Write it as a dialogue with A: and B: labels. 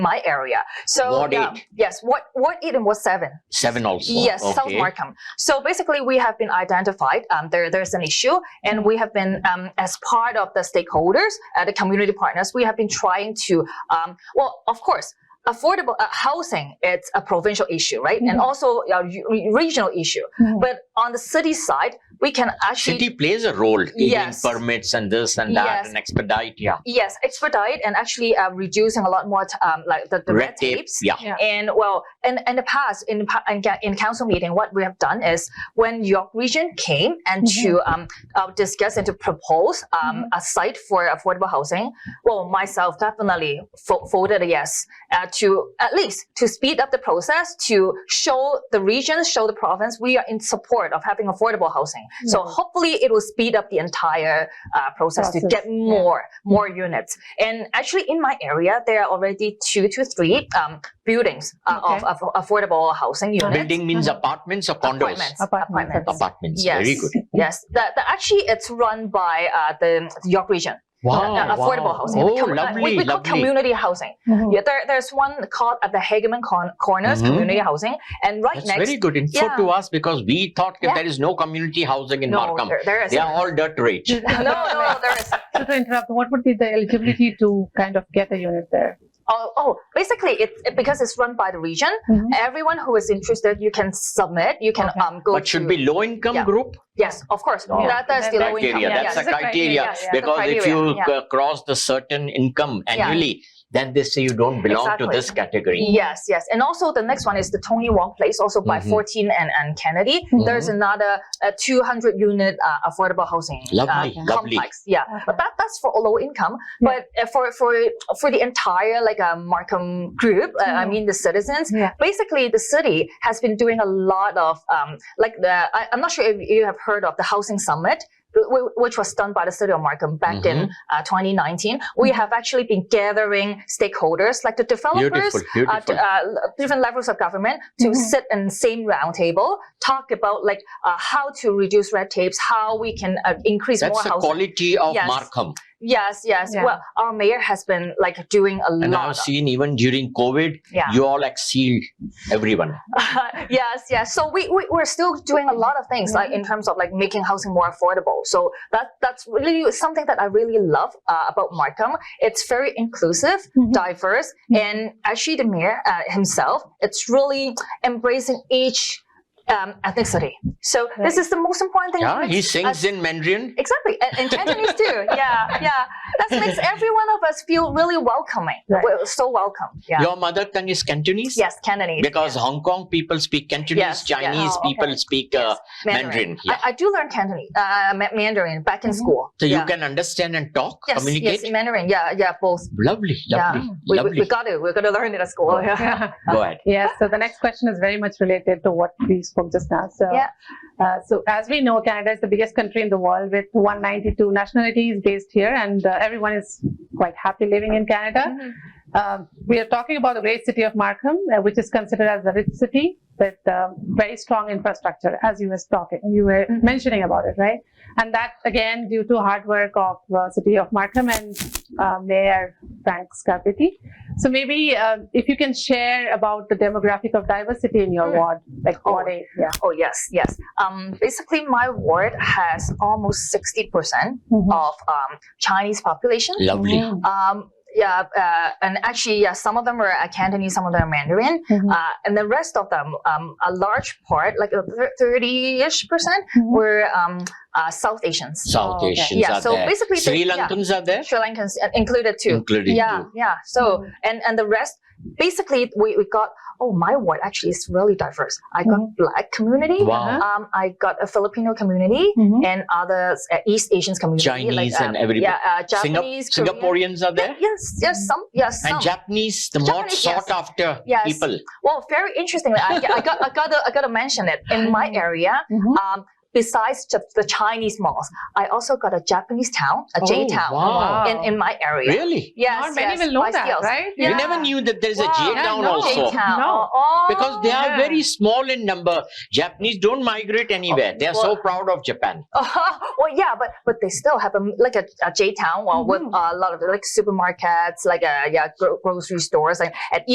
A: my area. So
B: Ward
A: yeah,
B: eight.
A: yes, what what eight and what seven?
B: Seven also.
A: Yes,
B: okay.
A: South Markham. So basically, we have been identified. Um, there, there's an issue, and we have been, um, as part of the stakeholders, uh, the community partners, we have been trying to, um, well, of course. Affordable uh, housing, it's a provincial issue, right? And
C: Mhm.
A: also a re- regional issue.
C: Mhm.
A: But on the city side, we can actually
B: City plays a role in
A: Yes.
B: permits and this and that
A: Yes.
B: and expedite. Yeah.
A: yes, expedite and actually uh, reducing a lot more t- um, like the, the red, tapes.
B: Yeah.
C: Yeah.
A: And well, in, in the past, in, the pa- in, ca- in council meeting, what we have done is when York Region came and to
C: Mm-hmm.
A: um, uh, discuss and to propose um, a site for affordable housing, well, myself definitely fo- voted a yes uh, to at least to speed up the process to show the region, show the province we are in support of having affordable housing. So
C: Mhm.
A: hopefully it will speed up the entire uh, process, to
C: Process,
A: get more more units. And actually, in my area, there are already two to three um, buildings uh, of, of affordable housing units.
B: Building means apartments or condos.
A: Apartments.
C: Apartments.
A: Apartments.
B: Apartments.
A: Yes.
B: Very good.
A: Yes. That, that actually it's run by uh, the York Region,
B: Wow.
A: uh, affordable
B: Oh, wow.
A: housing.
B: Oh,
A: we, com- uh,
B: lovely.
A: we, we call
B: lovely.
A: community housing.
B: Hmm.
C: Mhm.
A: Yeah, there, there's one called at the Hageman Con- Corners
B: Mhm.
A: Community Housing, and right
B: That's
A: next.
B: very good info
A: Yeah.
B: to us because we thought that
A: Yeah.
B: there is no community housing in
A: no,
B: Markham.
A: there, there is.
B: They are all dirt rich.
A: no, no, there is.
C: So to interrupt, what would be the eligibility to kind of get a unit there?
A: Oh, oh basically, it, it- because it's run by the region.
C: Mhm.
A: Everyone who is interested, you can submit. You can
C: Okay.
A: um go.
B: But should
A: to-
B: be low income
A: Yeah.
B: group
A: Yes, of course.
B: Oh,
A: That, that's the low income.
B: criteria.
C: yeah,
B: That's
A: yes.
B: a
C: that's the
B: criteria,
C: criteria, yeah, yeah.
B: because if
A: criteria,
B: you
A: yeah.
B: c- cross the certain income
A: Yeah.
B: annually, then they say you don't belong to
A: Exactly.
B: this category.
A: Yes, yes. And also the next one is the Tony Wong Place, also by
B: Mhm.
A: 14 and, and Kennedy. There's another uh, 200 unit uh, affordable housing
B: Lovely,
A: uh,
B: lovely.
A: complex. Yeah. But that, that's for low income. But uh, for, for, for the entire like uh, Markham group, uh, I
C: Mhm.
A: mean the citizens,
C: Yeah.
A: basically the city has been doing a lot of um, like the, I, I'm not sure if you have heard of the housing summit. wh- wh- Which was done by the city of Markham back in
B: Mm-hmm.
A: uh, 2019. We have actually been gathering stakeholders, like the developers,
B: Beautiful,
A: uh,
B: beautiful.
A: d- uh, l- different levels of government to
C: Mhm.
A: sit in same roundtable, talk about like uh, how to reduce red tapes, how we can uh, increase more
B: That's the
A: housing.
B: quality of
A: Yes.
B: Markham.
A: yes, yes.
C: Yeah.
A: Well, our mayor has been like doing a
B: And
A: lot.
B: I've seen even during COVID,
A: of, yeah.
B: you all exceed everyone.
A: yes, yes. So we, we we're still doing a lot of things like
C: Mm-hmm.
A: in terms of like making housing more affordable. So that that's really something that I really love uh, about Markham. It's very inclusive,
C: Mhm.
A: diverse,
C: Mhm.
A: and actually the mayor uh, himself, it's really embracing each um, ethnicity. So this
C: Right.
A: is the most important thing.
B: Yeah, he
A: Makes
B: sings
A: us-
B: in Mandarin.
A: Exactly, and, and Cantonese too. Yeah, yeah. That makes every one of us feel really welcoming.
C: Right.
A: We're so welcome. Yeah.
B: Your mother tongue is Cantonese?
A: Yes, Cantonese.
B: Because Hong Kong people speak Cantonese,
A: Yes, yes.
B: Chinese
C: Oh, okay.
B: people speak uh, Mandarin. Yeah. Mm-hmm.
A: I, I do learn Cantonese, uh, Ma- Mandarin back in
C: Mhm.
A: school.
B: So you
A: Yeah.
B: can understand and talk,
A: yes,
B: communicate.
A: yes, Mandarin. Yeah, yeah, both.
B: Lovely,
A: Yeah.
B: lovely,
A: We, we,
B: lovely. Oh.
A: we got it. We're gonna learn it at school.
B: Go ahead.
C: Yeah, so the next question is very much related to what we spoke just now. So,
A: Yeah.
C: uh, so as we know, Canada is the biggest country in the world with 192 nationalities based here, and uh, everyone is quite happy living in
A: Mm-hmm.
C: Canada. Um, we are talking about the great city of Markham, uh, which is considered as a rich city with um, very strong infrastructure, as you were talking, you were
A: Mhm.
C: mentioning about it, right? And that again due to hard work of uh, city of Markham and uh, Mayor Frank Scarpetti. So maybe uh, if you can share about the demographic of diversity in your
A: Mm.
C: ward, like
A: Oh.
C: ward A, yeah.
A: Oh yes, yes. Um, basically, my ward has almost sixty percent
C: Mm-hmm.
B: Mm-hmm.
A: of um, Chinese population.
B: Lovely.
C: Mhm.
A: Um, yeah, uh, and actually, yeah, some of them are uh, Cantonese, some of them are Mandarin.
C: Mhm.
A: Uh, and the rest of them, um, a large part, like uh, thir- 30-ish percent,
C: Mhm.
A: were um, uh, South Asians.
B: South
C: okay.
B: Asians
A: Oh, Yeah,
B: are
A: so
B: there.
A: basically they-
B: Sri
A: yeah.
B: Lankans are there,
A: Sri Lankans uh, included too.
B: including
A: yeah,
B: you.
A: yeah. So, and, and the rest, basically, we, we got, oh, my ward actually is really diverse. I got
C: Mhm.
A: black community.
B: Wow.
A: Um, I got a Filipino community
C: Mhm.
A: and other uh, East Asians community.
B: Chinese
A: like,
B: and
A: um,
B: everybody.
A: Yeah, uh,
B: Singap-
A: Japanese, Korean.
B: Singaporeans are there,
A: Yes, yes, some, yes, some.
B: and Japanese, the more
A: Oh. Japanese, yes.
B: sought after
A: Yes.
B: people.
A: Well, very interestingly, I, I got I got to, I got to mention it in my area.
C: Mhm.
A: Um, besides just the Chinese malls, I also got a Japanese town, a J
B: Oh,
A: town
B: Wow.
A: in, in my area.
B: Really?
A: Yes,
C: Not many
A: yes,
C: will know
A: by
C: that,
A: skills.
C: right?
B: We
A: Yeah.
B: never knew that there is a
A: Wow.
B: J
A: Yeah,
B: town
C: no.
B: also.
A: J town.
C: No.
A: Oh,
B: Because they are
C: yeah.
B: very small in number. Japanese don't migrate anywhere. They are
A: Oh.
B: so
A: Well-
B: proud of Japan.
A: Oh, well, yeah, but but they still have a like a, a J town, well, with
C: Mhm.
A: a lot of like supermarkets, like uh yeah, gro- grocery stores, and, and